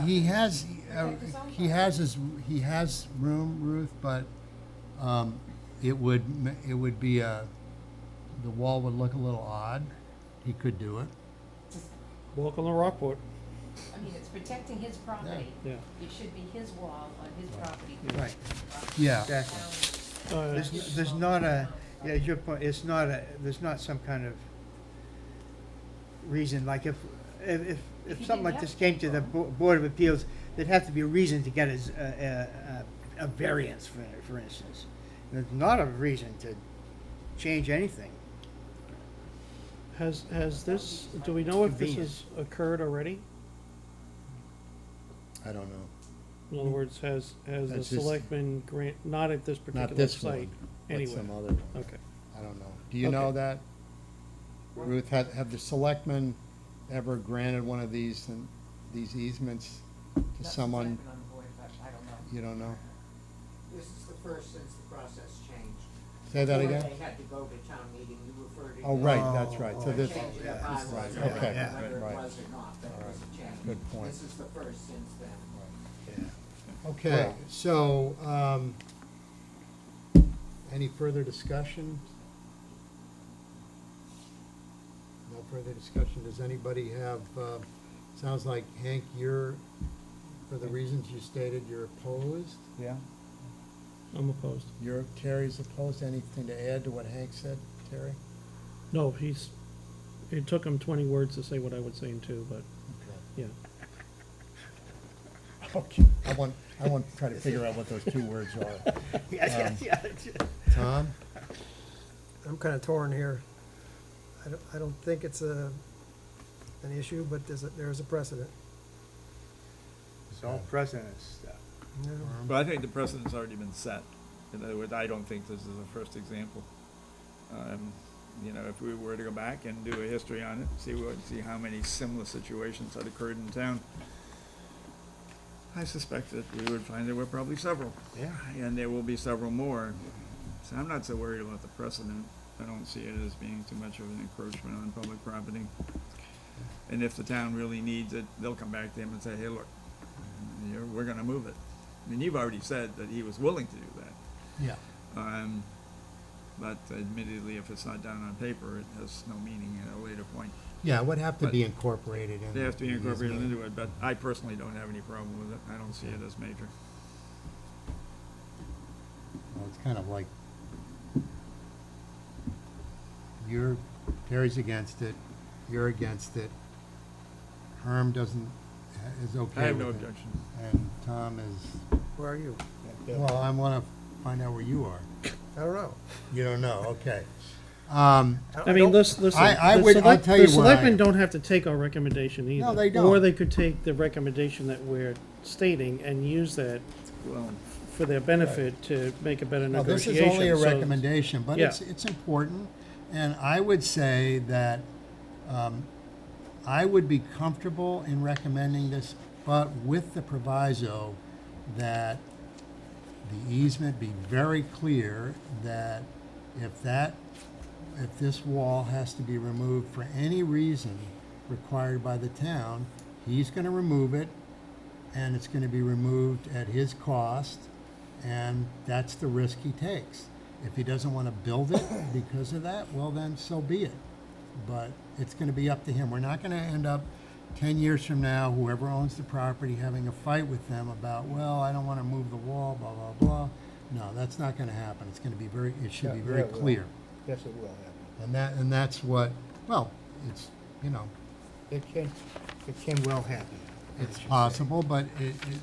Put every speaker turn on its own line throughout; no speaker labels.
he has, uh, he has his, he has room, Ruth, but, um, it would, m- it would be a, the wall would look a little odd. He could do it.
Welcome to Rockport,
I mean, it's protecting his property.
yeah.
It should be his wall on his property.
Right.
Yeah,
Exactly.
Uh,
There's, n- there's not a, yeah, your point, it's not a, there's not some kind of reason, like if, if, if-
If
if
you
something
didn't
like this
have
came to the Bo- Board of Appeals, there'd have to be a reason to get a, z- a, a- a- a variance, for, for instance. There's not a reason to change anything.
Has, has this, do we know if this has
Convenience.
occurred already?
I don't know.
In other words, has, has
Mm.
the
That's just-
selectmen grant, not at this
Not
particular
this one,
site?
but
anyway?
some other one.
Okay.
I don't know. Do you know
Okay.
that? Ruth, have, have the selectmen ever granted one of these, and these easements to someone?
That's been on the board, but I don't know.
You don't know?
This is the first since the process changed.
Say that
Before
again?
they had to go to town meeting, you referred to.
Oh,
this
right, that's right. So
Oh,
and
this,
Changing the
yeah,
bylaws,
right,
or whether
okay,
it
right.
was or not, that was a change.
Good point.
This is the first since then.
okay, so, um, any further discussion? No further discussion. Does anybody have, uh, sounds like Hank, you're, for the reasons you stated, you're opposed?
Yeah,
I'm opposed.
You're, Terry's opposed. Anything to add to what Hank said, Terry?
No, he's, it took him twenty words to say what I would say in two, but, yeah.
Okay. I want, I want to try to figure out what those two words are.
Yeah, yeah, yeah.
Tom?
I'm kind of torn here. I don't, I don't think it's a, an issue, but there's a, there's a precedent.
It's all precedent stuff.
you know?
but I think the precedent's already been set. In other words, I don't think this is the first example. Um, you know, if we were to go back and do a history on it, see what, see how many similar situations had occurred in town, I suspect that we would find there were probably several.
Yeah.
And there will be several more. So I'm not so worried about the precedent. I don't see it as being too much of an encroachment on public property. And if the town really needs it, they'll come back to him and say, hey, look, you're, we're gonna move it. I mean, you've already said that he was willing to do that.
Yeah.
Um, but admittedly, if it's not down on paper, it has no meaning at a later point.
Yeah, it would have to be
But-
incorporated in.
They have to be
in his
incorporated
name.
into it, but I personally don't have any problem with it. I don't see it as major.
Well, It's kind of like, you're, Terry's against it, you're against it. Herm doesn't, is okay with it.
I have no objection.
And Tom is,
Where are you?
well, I want to find out where you are.
I don't know.
You don't know, okay. Um,
don't-
I mean,
don't-
listen, listen.
I
the
would- I'll
select-
tell you
The
what I-
selectmen don't have to take our recommendation either.
they
Or
don't.
they could take the recommendation that we're stating and use that
Well,
for their benefit to make a better
Well, this
negotiation.
is only a
so-
recommendation, but
Yeah.
it's, it's important. And I would say that um, I would be comfortable in recommending this, but with the proviso that the easement be very clear that if that, if this wall has to be removed for any reason required by the town, he's gonna remove it, and it's gonna be removed at his cost, and that's the risk he takes. If he doesn't wanna build it because of that, well then, so be it. But it's gonna be up to him. We're not gonna end up ten years from now, whoever owns the property, having a fight with them about, well, I don't wanna move the wall, blah, blah, blah. No, that's not gonna happen. It's gonna be very, it should be
Yeah,
very
yeah, it will.
clear.
Yes, it will happen.
And that, and that's what, well, it's, you know,
It can, it can well happen.
it's possible, but it, it,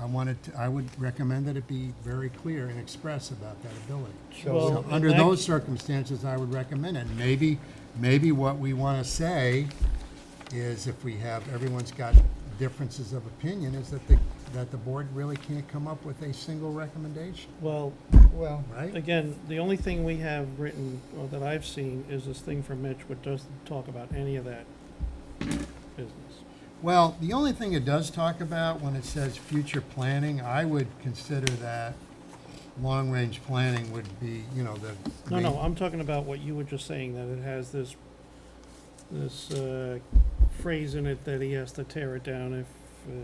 I wanted to, I would recommend that it be very clear and express about that ability.
Well,
So,
in
under
that-
those circumstances, I would recommend it. Maybe, maybe what we wanna say is if we have, everyone's got differences of opinion, is that the, that the board really can't come up with a single recommendation,
Well,
Well.
right?
again, the only thing we have written, or that I've seen, is this thing from Mitch, which doesn't talk about any of that business.
Well, the only thing it does talk about when it says future planning, I would consider that long-range planning would be, you know, the.
No,
main-
no, I'm talking about what you were just saying, that it has this, this, uh, phrase in it that he has to tear it down if, uh,